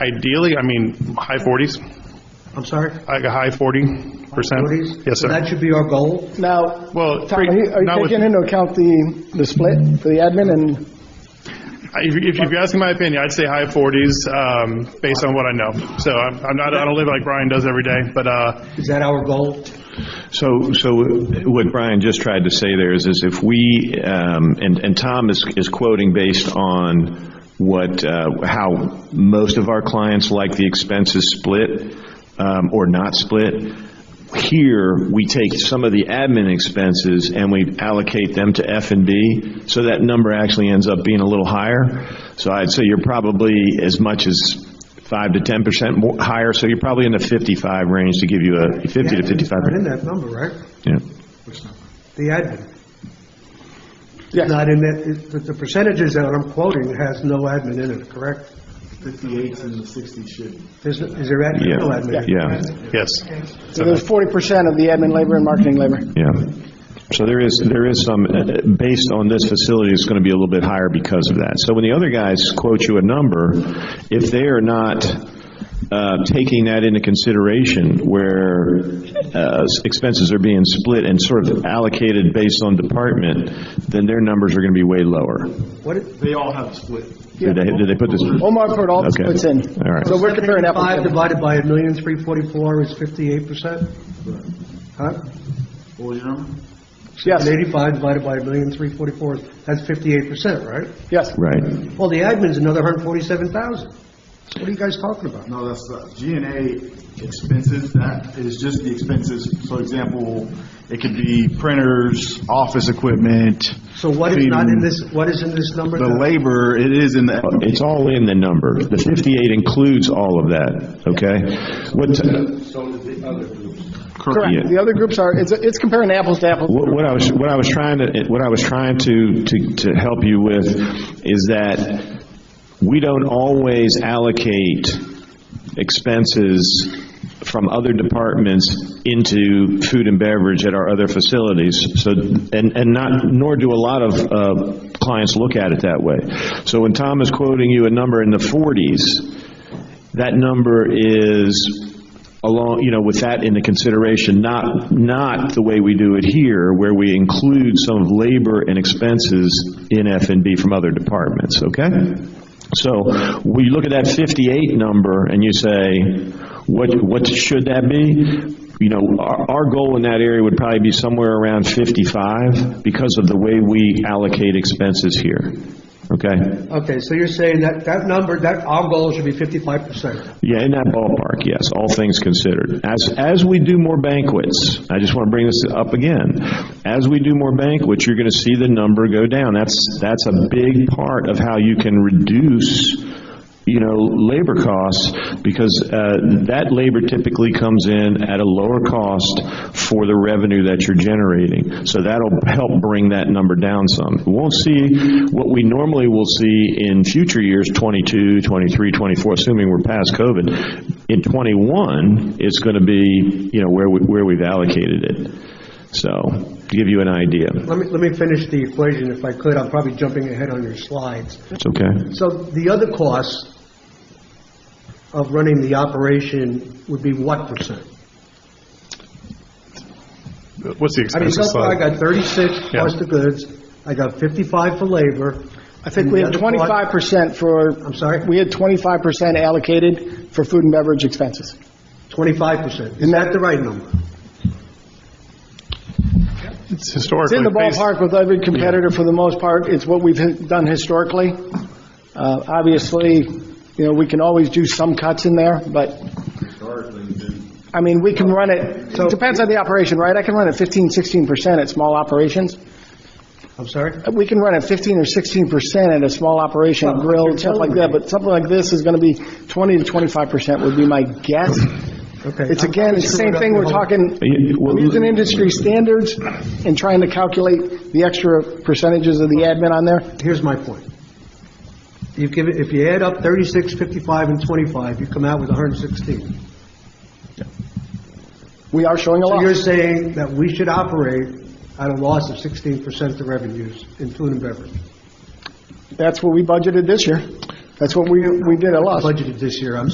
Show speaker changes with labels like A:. A: Ideally, I mean, high 40s,
B: I'm sorry?
A: like a high 40%.
B: 40s?
A: Yes,
B: So That
A: sir.
B: should be our goal.
C: Now,
A: Well,
C: Tom,
A: three-
C: are you- are
A: not
C: you
A: with-
C: taking into account the, the split for the admin and,
A: If if you're asking my opinion, I'd say high 40s, um, based on what I know. So I'm I'm not, I don't live like Brian does every day, but, uh,
B: Is that our goal?
D: So, so what Brian just tried to say there is, is if we, um, and, and Tom is, is quoting based on what, uh, how most of our clients like the expenses split, um, or not split. Here, we take some of the admin expenses and we allocate them to F and B, so that number actually ends up being a little higher. So I'd say you're probably as much as five to ten percent more, higher, so you're probably in the fifty-five range to give you a, fifty to
B: It's
D: fifty-five.
B: Not in that number, right?
D: Yeah.
B: The admin.
C: Yes.
B: Not in that, it- the- the percentages that I'm quoting has no admin in it, correct?
E: 58s and the 60s shouldn't.
B: There's, no- is there admin? No
D: Yeah,
B: admin.
D: yeah,
A: yes.
C: so there's 40% of the admin labor and marketing labor?
D: yeah. So there is, there is some, uh, based on this facility, it's going to be a little bit higher because of that. So when the other guys quote you a number, if they are not uh, taking that into consideration, where uh, expenses are being split and sort of allocated based on department, then their numbers are going to be way lower.
B: What is?
E: They all have a split.
D: Did they, did they put this?
C: Omar put all the
D: Okay.
C: splits in.
D: All right.
C: So we're comparing apples
B: Five
C: to apples.
B: divided by a million three forty-four is fifty-eight percent? Huh?
E: What was your number?
C: Yes,
B: And eighty-five divided by a million three forty-four, that's fifty-eight percent, right?
C: yes.
D: Right.
B: Well, the admin's another hundred forty-seven thousand. What are you guys talking about?
E: No, that's the G and A expenses, that is just the expenses. So example, it could be printers, office equipment.
B: So what is not in this, what is in this number?
E: The
B: that-
E: labor, it is in the,
D: It's all in the number. The 58 includes all of that, okay? What,
C: Correct.
D: Yeah.
C: The other groups are, it's, it's comparing apples to apples.
D: what what I was, what I was trying to, what I was trying to, to, to help you with is that we don't always allocate expenses from other departments into food and beverage at our other facilities. So, and, and not, nor do a lot of uh, clients look at it that way. So when Tom is quoting you a number in the 40s, that number is along, you know, with that into consideration, not, not the way we do it here, where we include some of labor and expenses in F and B from other departments, okay? So, we look at that 58 number and you say, what, what should that be? You know, our, our goal in that area would probably be somewhere around 55 because of the way we allocate expenses here, okay?
B: Okay, so you're saying that, that number, that, our goal should be fifty-five percent.
D: Yeah, in that ballpark, yes, all things considered. As, as we do more banquets, I just want to bring this up again. As we do more banquets, you're going to see the number go down. That's, that's a big part of how you can reduce, you know, labor costs, because uh, that labor typically comes in at a lower cost for the revenue that you're generating. So that'll help bring that number down some. We won't see what we normally will see in future years, 22, 23, 24, assuming we're past COVID. In 21, it's going to be, you know, where we, where we've allocated it. So, to give you an idea,
B: Let me, let me finish the equation if I could, I'm probably jumping ahead on your slides.
D: it's okay?
B: So the other costs of running the operation would be what percent?
A: What's the
B: I mean, so
A: expenses
B: far I
A: slide?
B: got thirty-six
A: Yeah.
B: cost of goods, I got fifty-five for labor.
C: I think we had
B: And the other part-
C: 25% for.
B: I'm sorry?
C: We had 25% allocated for food and beverage expenses.
B: Twenty-five percent, isn't that the right number?
A: It's
C: It's
A: historically.
C: in the
A: based-
C: ballpark with every competitor for the most part. It's what we've hi- done historically. Uh, Obviously, you know, we can always do some cuts in there, but, I mean, we can run it, it depends on the operation, right? I can run it 15, 16% at small operations.
B: I'm sorry?
C: We can run at 15 or 16% at a small operation,
B: Well,
C: grill,
B: you're
C: stuff like
B: telling
C: that,
B: me.
C: but something like this is going to be 20 to 25% would be my guess.
B: Okay.
C: It's again, it's the same thing, we're talking,
D: Yeah, well-
C: we're using industry standards and trying to calculate the extra percentages of the admin on there.
B: Here's my point. You give, it- if you add up 36, 55, and 25, you come out with 116.
C: We are showing a
B: So you're
C: loss.
B: saying that we should operate at a loss of 16% of revenues in food and beverage.
C: That's what we budgeted this year. That's what we, we did a loss.
B: Budgeted this year, I'm